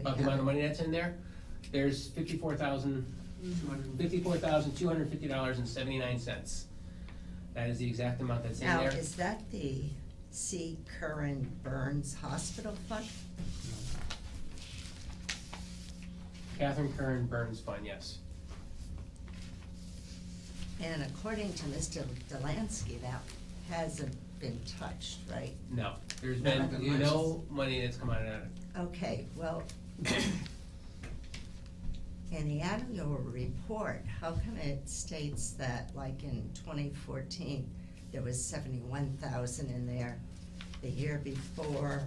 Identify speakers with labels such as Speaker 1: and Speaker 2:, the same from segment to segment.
Speaker 1: about the amount of money that's in there, there's fifty-four thousand, fifty-four thousand, two hundred and fifty dollars and seventy-nine cents. That is the exact amount that's in
Speaker 2: Now,
Speaker 1: there.
Speaker 2: is that the C. Curran Burns Hospital Fund?
Speaker 1: Catherine Curran Burns Fund, yes.
Speaker 2: And according to Mr. Delansky, that hasn't been touched, right?
Speaker 1: No, there's
Speaker 2: No,
Speaker 1: been
Speaker 2: not the
Speaker 1: no money that's come out of that.
Speaker 2: Okay, well, in the annual report, how come it states that like in twenty fourteen, there was seventy-one thousand in there? The year before,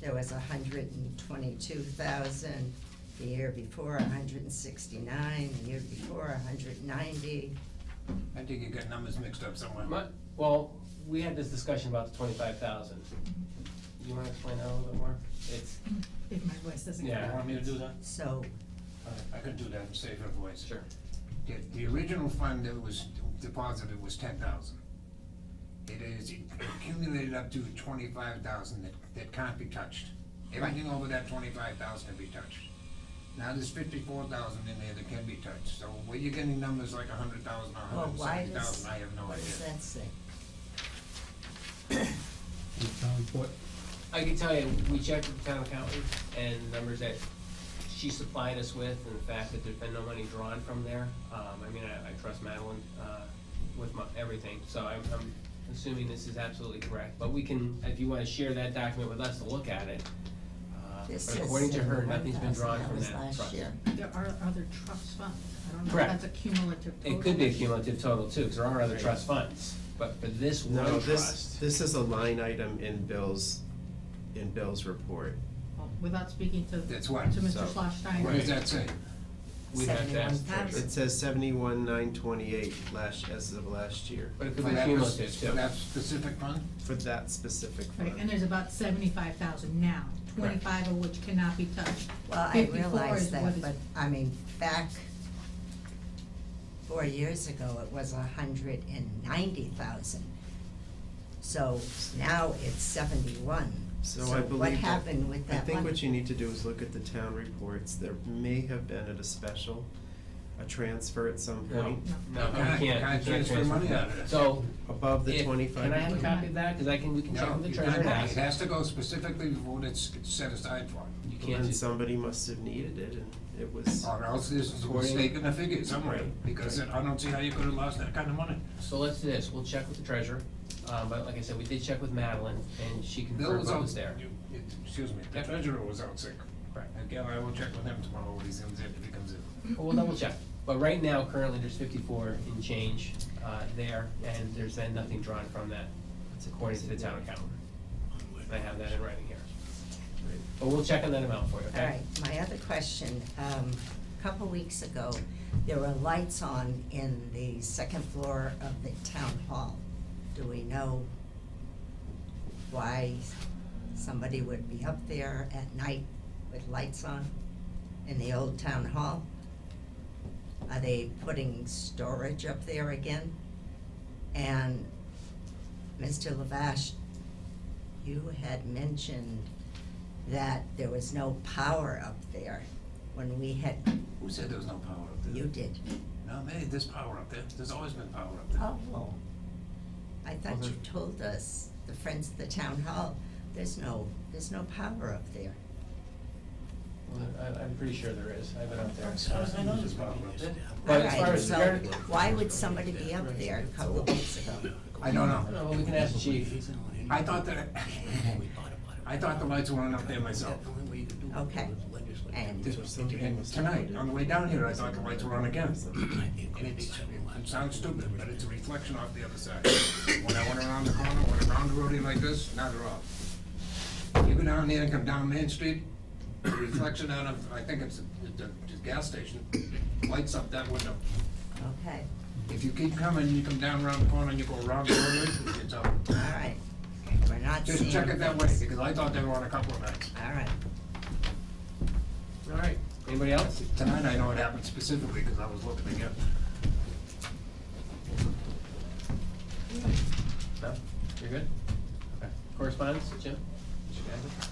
Speaker 2: there was hundred and twenty-two thousand, the year before, hundred and sixty-nine, the year before, hundred and ninety.
Speaker 3: I think you got numbers mixed up somewhere.
Speaker 1: My- Well, we had this discussion about the twenty-five thousand. You wanna explain that a little bit more? It's,
Speaker 4: If my voice doesn't go
Speaker 1: Yeah.
Speaker 3: You want me to do that?
Speaker 2: So,
Speaker 3: I could do that in safer voice.
Speaker 1: sure,
Speaker 3: The, the original fund that was deposited was ten thousand. It is accumulated up to twenty-five thousand that, that can't be touched. Everything over that twenty-five thousand can be touched. Now, there's fifty-four thousand in there that can be touched, so where you're getting numbers like a hundred thousand, a
Speaker 2: well,
Speaker 3: hundred and
Speaker 2: why
Speaker 3: seventy
Speaker 2: does,
Speaker 3: thousand, I have no idea.
Speaker 2: what does that say?
Speaker 5: The town report,
Speaker 1: I can tell you, we checked with the town accountant and the numbers that she supplied us with and the fact that there's been no money drawn from there. Um, I mean, I, I trust Madeline, uh, with my, everything, so I'm, I'm assuming this is absolutely correct. But we can, if you wanna share that document with us to look at it. Uh,
Speaker 2: This
Speaker 1: But
Speaker 2: is
Speaker 1: according to her, nothing's
Speaker 2: 71,000,
Speaker 1: been drawn
Speaker 2: that
Speaker 1: from
Speaker 2: was
Speaker 1: that
Speaker 2: last
Speaker 1: trust.
Speaker 2: year.
Speaker 4: There are other trust funds. I don't know if
Speaker 1: Correct.
Speaker 4: that's a cumulative total.
Speaker 1: It could be a cumulative total too, because there are other
Speaker 6: Right.
Speaker 1: trust funds, but for this
Speaker 6: No,
Speaker 1: one
Speaker 6: this,
Speaker 1: trust.
Speaker 6: this is a line item in Bill's, in Bill's report.
Speaker 4: Well, Without speaking to, to
Speaker 3: That's what,
Speaker 4: Mr.
Speaker 6: So-
Speaker 4: Schlossstein.
Speaker 3: what does that say?
Speaker 1: We'd have to ask the
Speaker 2: 71,000.
Speaker 1: treasurer.
Speaker 6: It says seventy-one nine twenty-eight last, as of last year,
Speaker 1: But it
Speaker 3: For
Speaker 1: could be
Speaker 3: that
Speaker 1: cumulative
Speaker 3: pers-
Speaker 1: too.
Speaker 3: For that specific fund?
Speaker 6: for that specific
Speaker 4: Right, and
Speaker 6: fund.
Speaker 4: there's about seventy-five thousand now, twenty-five of which cannot be touched.
Speaker 2: Well, I
Speaker 4: 54
Speaker 2: realize
Speaker 4: is what
Speaker 2: that,
Speaker 4: is-
Speaker 2: but, I mean, back four years ago, it was a hundred and ninety thousand. So now it's seventy-one.
Speaker 6: So I believe
Speaker 2: what
Speaker 6: that-
Speaker 2: happened with
Speaker 6: I
Speaker 2: that
Speaker 6: think
Speaker 2: money?
Speaker 6: what you need to do is look at the town reports, there may have been at a special, a transfer at some
Speaker 1: No.
Speaker 6: point,
Speaker 1: No,
Speaker 3: Can
Speaker 1: you
Speaker 3: I-
Speaker 1: can't, you
Speaker 3: can I
Speaker 1: can't
Speaker 3: transfer
Speaker 1: transfer
Speaker 3: money
Speaker 1: that.
Speaker 3: out of this?
Speaker 1: So,
Speaker 6: above the
Speaker 1: if-
Speaker 6: twenty-five.
Speaker 1: can I have a copy of that? Because I can, we can check
Speaker 3: No,
Speaker 1: with the
Speaker 3: you
Speaker 1: treasurer.
Speaker 3: can't,
Speaker 1: and
Speaker 3: it
Speaker 1: ask.
Speaker 3: has to go specifically for what it's set aside for.
Speaker 1: You can't
Speaker 6: And
Speaker 1: just,
Speaker 6: somebody must have needed it, and it was,
Speaker 3: Or else there's a mistake in the figure somewhere, because I don't see how you could have lost that kind of money.
Speaker 1: so let's do this, we'll check with the treasurer, um, but like I said, we did check with Madeline, and she
Speaker 3: Bill
Speaker 1: confirmed
Speaker 3: was
Speaker 1: what
Speaker 3: out
Speaker 1: was there.
Speaker 3: there. Excuse me, the treasurer was out sick.
Speaker 1: Correct.
Speaker 3: Again, I will check with him tomorrow when he comes in, if he comes in.
Speaker 1: Well, we'll double check, but right now, currently, there's fifty-four in change, uh, there, and there's been nothing drawn from that, according to the town accountant. And I have that in writing here. But we'll check on that amount for you,
Speaker 2: All
Speaker 1: okay?
Speaker 2: right, my other question, um, a couple weeks ago, there were lights on in the second floor of the town hall. Do we know why somebody would be up there at night with lights on in the old town hall? Are they putting storage up there again? And Mr. Lavash, you had mentioned that there was no power up there when we had,
Speaker 3: Who said there was no power up there?
Speaker 2: you did.
Speaker 3: No, man, there's power up there. There's always been power up there.
Speaker 2: Oh, well, I thought you
Speaker 1: Okay.
Speaker 2: told us, the friends of the town hall, there's no, there's no power up there.
Speaker 1: Well, I, I'm pretty sure there is, I've been up there.
Speaker 3: I- I know there's power up there.
Speaker 1: But as far as
Speaker 2: All right,
Speaker 1: security-
Speaker 2: so why would somebody be up there a couple of weeks ago?
Speaker 3: I don't
Speaker 1: I don't
Speaker 3: know.
Speaker 1: know, but we can ask the chief.
Speaker 3: I thought that, I thought the lights weren't up there myself.
Speaker 2: Okay, and-
Speaker 6: Or something
Speaker 3: And
Speaker 6: must have
Speaker 3: tonight,
Speaker 6: happened.
Speaker 3: on the way down here, I thought the lights were on again. And it's, it sounds stupid, but it's a reflection off the other side. When I went around the corner, went around the roadie like this, now they're off. You go down there and come down Main Street, the reflection out of, I think it's the, the, the gas station, lights up that window.
Speaker 2: Okay,
Speaker 3: If you keep coming, you come down around the corner, and you go around the roadie, it's up.
Speaker 2: all right, we're not seeing.
Speaker 3: Just check it that way,
Speaker 2: things.
Speaker 3: because I thought they were on a couple of nights.
Speaker 2: All right,
Speaker 1: All right, anybody else?
Speaker 3: Tonight, I know it happened specifically, because I was looking again.
Speaker 1: No, you're good? Okay. Correspondence, Jim? Did you have it?